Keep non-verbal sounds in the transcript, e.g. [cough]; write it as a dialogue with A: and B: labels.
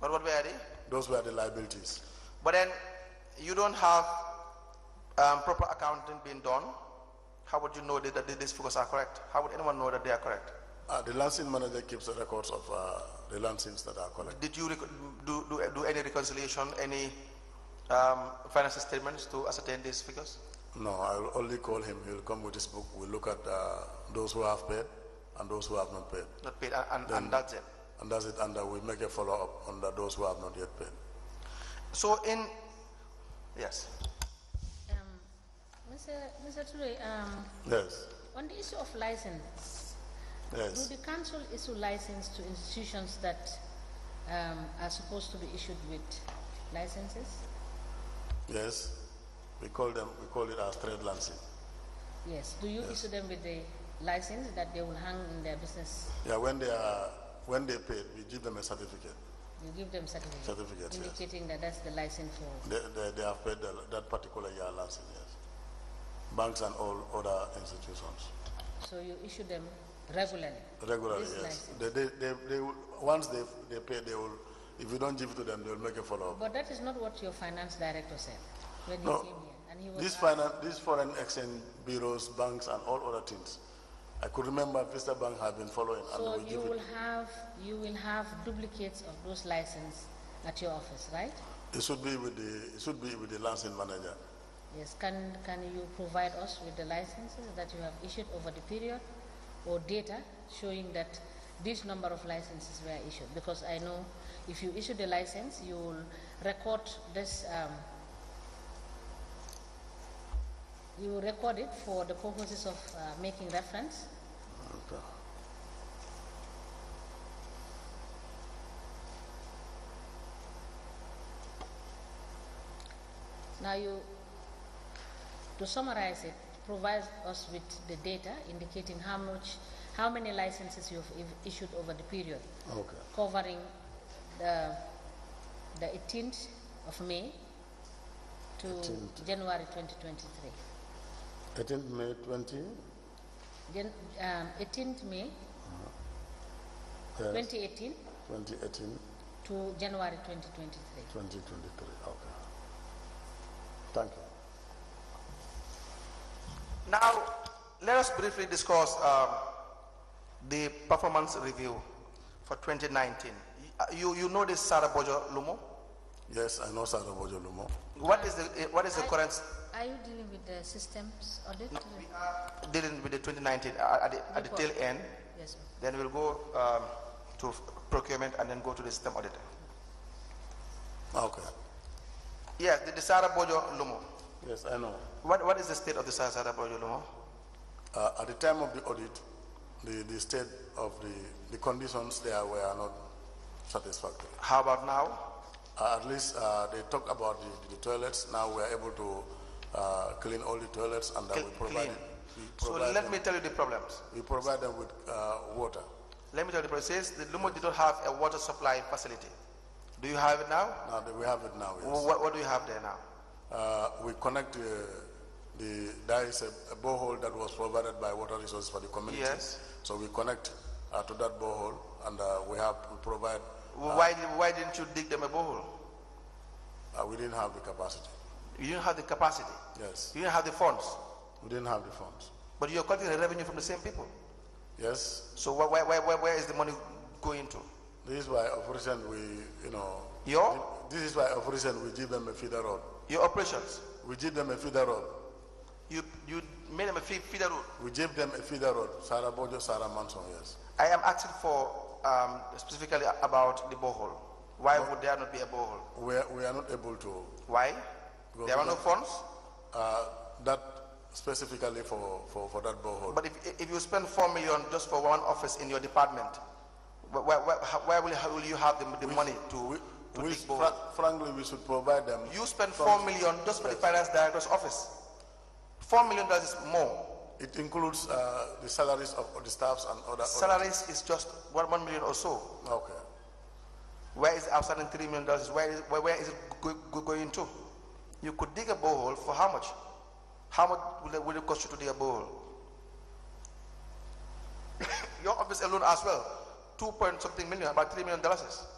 A: kon what were they?
B: Those were the liabilities.
A: But then you don't have um, proper accounting being done. How would you know that, that these figures are correct? How would anyone know that they are correct?
B: Uh, the Lansing manager keeps the records of uh, the Lansings that are collected.
A: Did you reco- do, do, do any reconciliation, any um, financial statements to ascertain these figures?
B: No, I'll only call him. He'll come with his book. We'll look at uh, those who have paid and those who have not paid.
A: Not paid, and, and, and that's it.
B: And that's it. And uh, we make a follow up on the, those who have not yet paid.
A: So in, yes,
C: Um, Mr. Mr. Toure, um,
B: Yes.
C: on the issue of license, do
B: Yes.
C: the council issue license to institutions that um, are supposed to be issued with licenses?
B: Yes. We call them. We call it as trade Lansing.
C: Yes. Do you issue them with the license that they will hang in their business?
B: Yeah. When they are when they paid, we give them a certificate.
C: You give them certificate,
B: Certificates, yes.
C: indicating that that's the license for.
B: They, they, they have paid the, that particular year Lansing. Yes. Banks and all other institutions.
C: So you issue them regularly.
B: Regularly,
C: This
B: yes.
C: license.
B: They, they, they, they will, once they, they pay, they will, if you don't give it to them, they will make a follow-up.
C: But that is not what your finance director said when he
B: No.
C: came here, and he was.
B: These
C: asked-
B: finance, these foreign exchange bureaus, banks and all other things, I could remember Vista Bank have been following
C: So
B: and we
C: you
B: give
C: will
B: it.
C: have, you will have duplicates of those license at your office, right?
B: It should be with the, it should be with the Lansing manager.
C: Yes, can, can you provide us with the licenses that you have issued over the period or data showing that this number of licenses were issued? Because I know if you issue the license, you will record this, um, you will record it for the purposes of uh, making reference.
B: Okay.
C: Now you, to summarize it, provide us with the data indicating how much, how many licenses you've i- issued over the period,
B: Okay.
C: covering the, the 18th of May to
B: 18th.
C: January 2023.
B: Eighteenth May twenty?
C: Jan- um, 18th May 2018
B: Twenty eighteen,
C: to January 2023.
B: twenty twenty-three, okay. Thank you.
A: now let us briefly discuss um, the performance review for 2019. Y- uh, You, you know this Sarah Bojo Lumo?
B: Yes, I know Sarabojo Lumo.
A: What is the, eh, what is the current,
C: Are you dealing with the systems audit?
A: dealing with the 2019 uh, at the, at the tail end?
C: Yes, sir.
A: Then we'll go um, to procurement and then go to the system auditor.
B: Okay.
A: Yes, the, the Sarah Bojo Lumo.
B: Yes, I know.
A: What, what is the state of the Sarah Sarah Bojo Lumo?
B: Uh, at the time of the audit, the, the state of the, the conditions there were not satisfactory.
A: How about now?
B: Uh, at least uh, they talk about the, the toilets. Now we are able to uh, clean all the toilets and that we provide,
A: Clean.
B: we
A: So
B: provide,
A: let
B: them,
A: me tell you the problems.
B: we provide them with uh, water.
A: Let me tell you the problem. It says the Lumo did not have a water supply facility. Do you have it now?
B: Now that we have it now, yes.
A: What, what do you have there now?
B: Uh, we connect uh, the, there is a, a borehole that was provided by Water Resources for the community.
A: Yes.
B: So we connect uh, to that borehole and uh, we have, we provide,
A: Why, why didn't you dig them a borehole?
B: uh, we didn't have the capacity.
A: You didn't have the capacity.
B: Yes.
A: You didn't have the funds.
B: We didn't have the funds.
A: But you're collecting the revenue from the same people.
B: Yes,
A: So wh- wh- wh- wh- where is the money going to?
B: this is why operation we, you know.
A: Your?
B: This is why operation we give them a feeder road.
A: Your operations.
B: We give them a feeder road.
A: You, you made them a fee, feeder road.
B: We give them a feeder road. Sarah Bojo, Sarah Manson, yes.
A: I am asking for um, specifically about the borehole. Why would there not be a borehole?
B: We are, we are not able to,
A: Why?
B: Go
A: There
B: to
A: are no
B: the-
A: funds.
B: uh, that specifically for, for, for that borehole.
A: But if, if you spend four million just for one office in your department, where, where, where will, how will you have the, the money to,
B: We,
A: to
B: we
A: dig borehole?
B: fra- frankly, we should provide them.
A: You spend four million just for the finance director's office. Four million dollars is more.
B: It includes, uh, the salaries of of the staffs and other. other-
A: Salaries is just one, one million or so.
B: Okay.
A: Where is the outstanding three million dollars? Where is, where, where is it go, go, going to? You could dig a borehole for how much? How much will it, will it cost you to dig a borehole? [coughs] Your office alone as well, two point something million, about three million dollars.